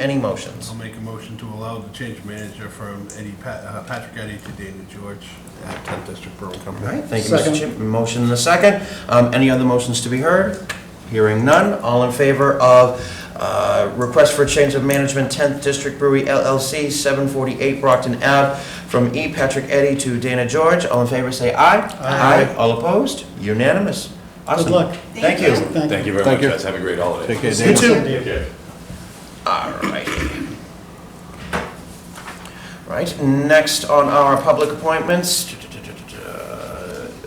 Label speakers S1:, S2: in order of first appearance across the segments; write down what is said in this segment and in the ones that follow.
S1: Any motions?
S2: I'll make a motion to allow the change manager from Eddie, Pa- uh, Patrick Eddie to Dana George at 10th District Brewing
S1: All
S2: Company.
S1: right, thank you, Mr.
S3: Second.
S1: Chip. Motion and a second. Um, Any other motions to be heard? Hearing none. All in favor of uh, request for change of management, 10th District Brewery LLC, 748 Brockton Ave, from E. Patrick Eddy to Dana George. All in favor, say aye.
S2: Aye.
S1: All opposed? Unanimous. Awesome.
S3: Good luck.
S1: Thank you.
S4: Thank you very
S2: Thank
S4: much,
S2: you.
S4: guys. Have a great holiday.
S2: Take care,
S1: You
S2: Dana.
S1: too.
S3: Thank you.
S4: Okay.
S1: All right. Right, next on our public appointments,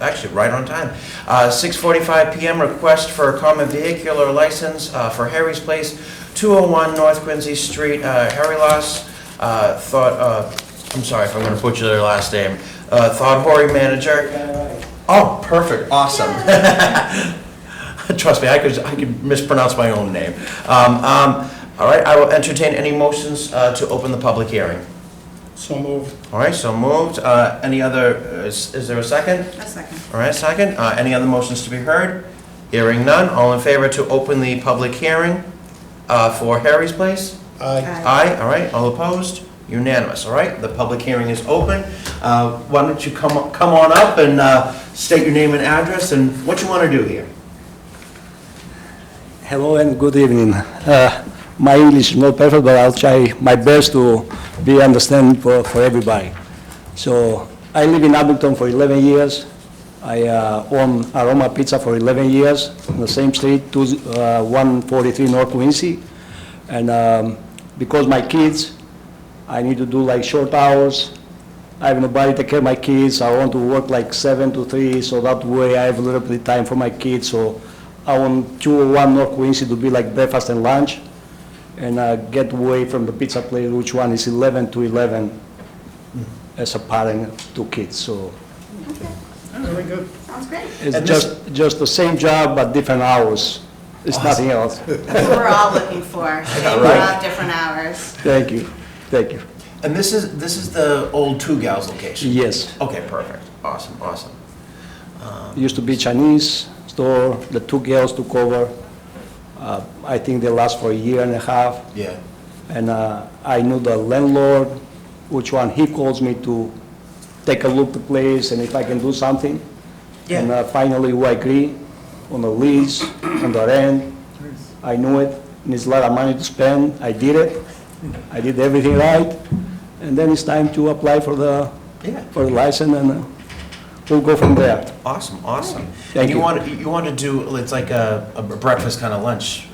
S1: actually, right on time. Uh, 6:45 PM, request for a common vehicular license uh, for Harry's Place, 201 North Quincy Street, uh, Harry Loss, uh, thought, uh, I'm sorry if I'm going to butcher their last name, uh, thought Hori manager. Oh, perfect, awesome. Trust me, I could, I could mispronounce my own name. Um, um, All right, I will entertain any motions uh, to open the public hearing.
S3: So moved.
S1: All right, so moved. Uh, Any other, is is there a second?
S5: A second.
S1: All right, second. Uh, Any other motions to be heard? Hearing none. All in favor to open the public hearing uh, for Harry's Place?
S3: Aye.
S5: Aye.
S1: Aye, all right. All opposed? Unanimous, all right? The public hearing is open. Uh, Why don't you come, o- come on up and uh, state your name and address and what you want to do here?
S6: Hello and good evening. Uh, My English is not perfect, but I'll try my best to be understanding for for everybody. So I live in Abington for 11 years. I uh, own Aroma Pizza for 11 years on the same street, two- uh, 143 North Quincy. And um, because my kids, I need to do like short hours. I have nobody to take care of my kids. I want to work like seven to three, so that way I have a little bit of time for my kids. So I want two or one North Quincy to be like breakfast and lunch, and uh, get away from the pizza place, which one is 11 to 11
S1: Mm-hmm.
S6: as a parent, two kids. So
S3: Very good.
S5: Sounds great.
S6: it's
S1: And this-
S6: just, just the same job, but different hours. It's nothing else.
S5: That's what we're all looking for. Same
S1: right.
S5: job, different hours.
S6: Thank you, thank you.
S1: And this is, this is the old Two Gals location?
S6: Yes.
S1: Okay, perfect. Awesome, awesome.
S6: used to be Chinese store, the two girls took over. Uh, I think they last for a year and a half,
S1: Yeah.
S6: and uh, I knew the landlord, which one, he calls me to take a look the place and if I can do something.
S1: Yeah.
S6: And uh, finally, we agree on the lease, on the rent. I knew it, and it's a lot of money to spend, I did it, I did everything right, and then it's time to apply for the,
S1: Yeah.
S6: for the license, and uh, we'll go from there.
S1: Awesome, awesome.
S6: Thank
S1: And you
S6: you.
S1: want, you want to do, it's like a a breakfast kind of lunch.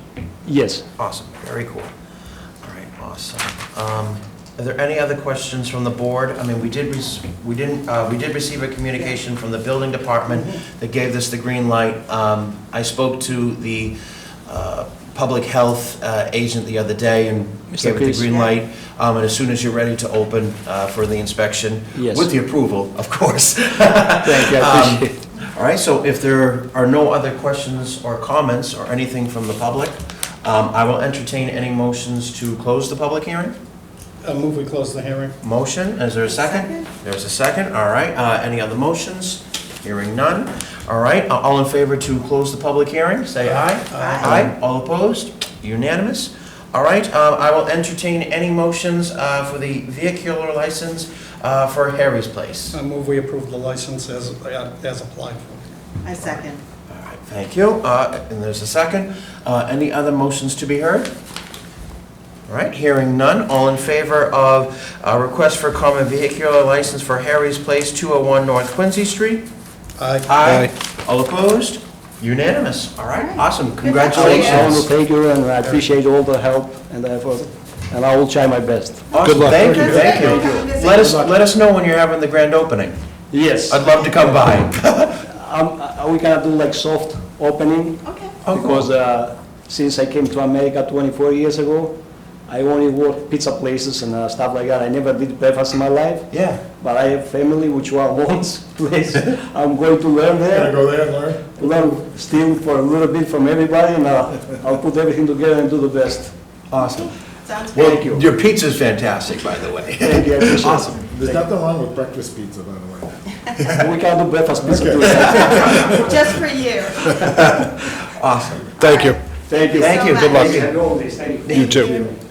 S6: Yes.
S1: Awesome, very cool. All right, awesome. Um, Are there any other questions from the board? I mean, we did, rec- we didn't, uh, we did receive a communication from the building department that gave this the green light. Um, I spoke to the uh, public health uh, agent the other day and
S6: Mr.
S1: gave it the
S6: Pierce.
S1: green
S5: Yeah.
S1: light. Um, And as soon as you're ready to open uh, for the inspection.
S6: Yes.
S1: With the approval, of course.
S6: Thank you, I appreciate it.
S1: Um, All right, so if there are no other questions or comments or anything from the public, um, I will entertain any motions to close the public hearing.
S3: I uh, move we close the hearing.
S1: Motion, is there a second?
S5: Second.
S1: There's a second, all right. Uh, Any other motions? Hearing none. All right, a- all in favor to close the public hearing, say aye.
S5: Aye.
S1: All opposed? Unanimous. All right, uh, I will entertain any motions uh, for the vehicular license uh, for Harry's Place.
S3: I uh, move we approve the license as, uh, as applied for.
S5: A second.
S1: All right, Thank you. Uh, And there's a second. Uh, Any other motions to be heard? All right, hearing none. All in favor of uh, request for common vehicular license for Harry's Place, 201 North Quincy Street?
S3: Aye.
S1: All opposed? Unanimous. All right, awesome.
S6: I want to
S1: Congratulations.
S6: thank you, and I appreciate all the help and effort, and I will try my best.
S1: Awesome.
S2: luck.
S1: Thank you,
S5: That's
S1: thank
S5: great.
S1: you.
S5: Come visit.
S1: Let us, let us know when you're having the grand opening.
S6: Yes.
S1: I'd love to come by.
S6: um, We cannot do like soft opening,
S5: Okay.
S1: Oh, cool.
S6: because uh, since I came to America 24 years ago, I only worked pizza places and uh, stuff like that. I never did breakfast in my life,
S1: Yeah.
S6: but I have family which one wants place. I'm going to learn
S3: Gonna
S6: there,
S3: go there and learn?
S6: learn still for a little bit from everybody, and uh, I'll put everything together and do the best.
S1: Awesome.
S5: Sounds great.
S6: Thank you.
S1: Your pizza's fantastic, by the way.
S6: Thank you, I appreciate it.
S1: Awesome.
S7: There's nothing wrong with breakfast pizza, by the way.
S6: We can do breakfast pizza too.
S5: Just for you.
S1: Awesome.
S2: Thank you.
S6: Thank you.
S1: Thank you. Good luck.
S6: Thank you.
S5: You too.